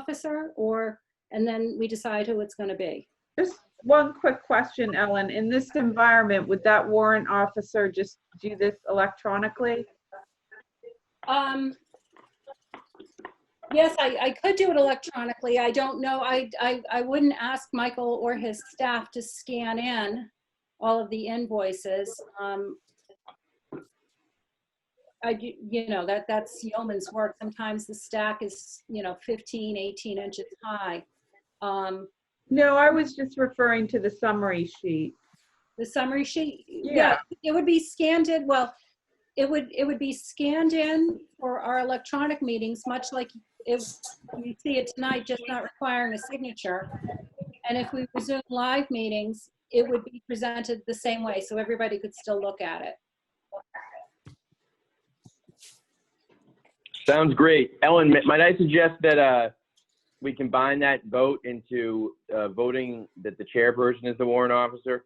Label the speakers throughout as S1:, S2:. S1: officer or, and then we decide who it's going to be.
S2: Just one quick question, Ellen. In this environment, would that warrant officer just do this electronically?
S1: Um, yes, I, I could do it electronically. I don't know. I, I, I wouldn't ask Michael or his staff to scan in all of the invoices. Um, I, do- you know, that, that's yeoman's work. Sometimes the stack is, you know, 15, 18 inches high. Um,
S2: No, I was just referring to the summary sheet.
S1: the summary sheet?
S2: Yeah.
S1: It would be scanned in, well, it would, it would be scanned in for our electronic meetings, much like if you see it tonight, just not requiring a signature. And if we resume live meetings, it would be presented the same way, so everybody could still look at it.
S3: Sounds great. Ellen, m- might I suggest that uh, we combine that vote into uh, voting that the chairperson is the warrant officer?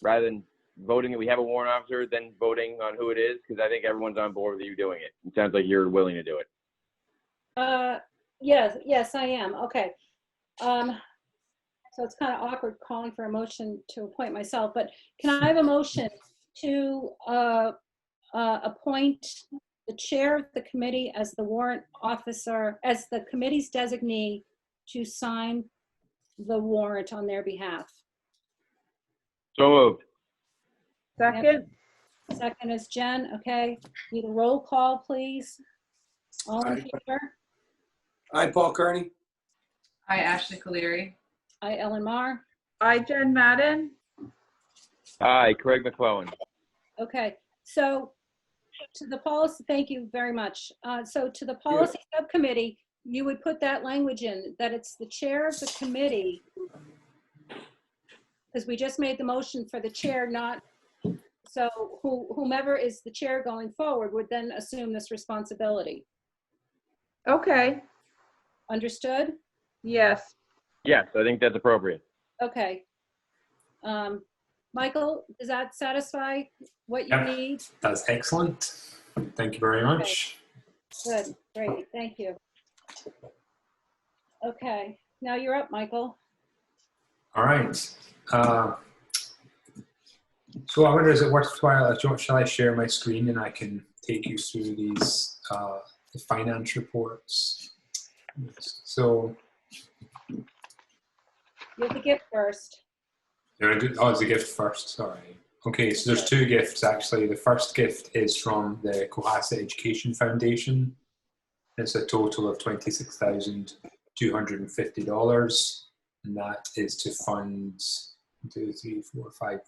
S3: Rather than voting that we have a warrant officer, then voting on who it is, because I think everyone's on board with you doing it. It sounds like you're willing to do it.
S1: Uh, yes, yes, I am, okay. Um, so it's kind of awkward calling for a motion to appoint myself, but can I have a motion to, uh, uh, appoint the chair of the committee as the warrant officer, as the committee's designee to sign the warrant on their behalf?
S3: So moved.
S2: Second?
S1: Second is Jen, okay? Need a roll call, please? All in favor?
S4: Hi, Paul Kearney.
S5: Hi, Ashley Caleri.
S1: I, Ellen Mar.
S2: I, Jen Madden?
S3: Aye, Craig McClellan.
S1: Okay, so to the policy, thank you very much. Uh, So to the policy subcommittee, you would put that language in, that it's the chair of the committee. Because we just made the motion for the chair, not, so who- whomever is the chair going forward would then assume this responsibility.
S2: Okay,
S1: Understood?
S2: yes.
S3: Yes, I think that's appropriate.
S1: Okay. Um, Michael, does that satisfy what you
S4: Yep.
S1: need?
S4: That's excellent. Thank you very much.
S1: Good, great, thank you. Okay, now you're up, Michael.
S4: All right. Uh, so I wonder, is it worthwhile? do you want- uh, Shall I share my screen and I can take you through these uh, the finance reports? So
S1: You have the gift first.
S4: There are good, oh, it's a gift first, sorry. Okay, so there's two gifts actually. The first gift is from the Cohasset Education Foundation. It's a total of $26,250. And that is to fund one, two, three, four, five,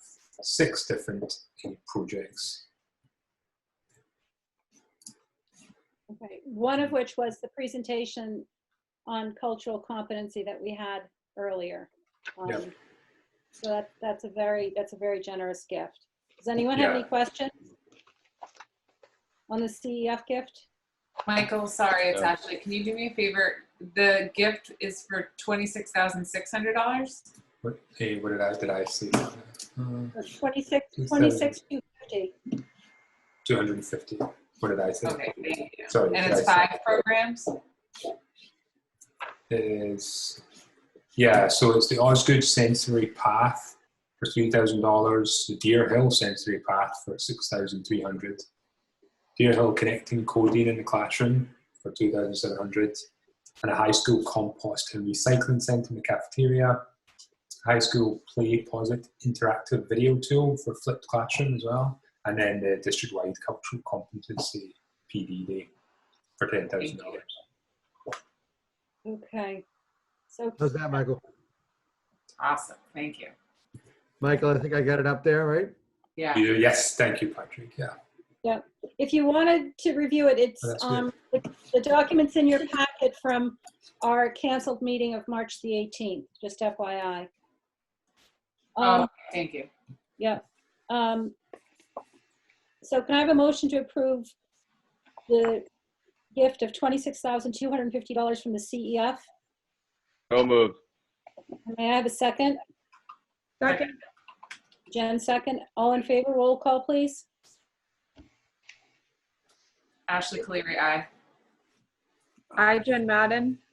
S4: six different uh, projects.
S1: Okay, one of which was the presentation on cultural competency that we had earlier. Um,
S4: Yeah.
S1: So that, that's a very, that's a very generous gift. Does anyone have any
S4: Yeah.
S1: questions? On the CEF gift?
S5: Michael, sorry, it's
S3: Yeah.
S5: Ashley. Can you do me a favor? The gift is for twenty-six thousand six hundred dollars.
S4: What, eh, what did I, did I say? Uh,
S1: Or 26,
S4: Two seventy.
S1: 26, 250.
S4: 250. What did I say?
S5: Okay, thank you.
S4: Sorry.
S5: And
S4: did
S5: it's
S4: I say-
S5: five programs.
S4: is yeah, so it's the Osgood Sensory Path for three thousand dollars, the Deer Hill Sensory Path for six thousand three hundred, Deer Hill Connecting Coding in the Classroom for two thousand seven hundred, and a high school compost and recycling centre in the cafeteria, high school play posit interactive video tool for flipped classroom as well, and then the district wide cultural competency PD day for ten thousand dollars.
S1: Okay. So
S6: How's that, Michael?
S5: Awesome, thank you.
S6: Michael, I think I got it up there, right?
S5: Yeah.
S4: Yes, thank you, Patrick. Yeah.
S1: if you wanted to review it, it's,
S4: Oh, that's good.
S1: um, the the documents in your packet from our canceled meeting of March the 18th, just FYI.
S5: Oh,
S1: Um,
S5: thank you.
S1: yeah. Um, so can I have a motion to approve the gift of $26,250 from the CEF?
S3: So moved.
S1: May I have a second?
S2: Second,
S1: Jen, second. All in favor, roll call, please.
S5: Ashley Caleri, aye.
S2: I, Jen Madden?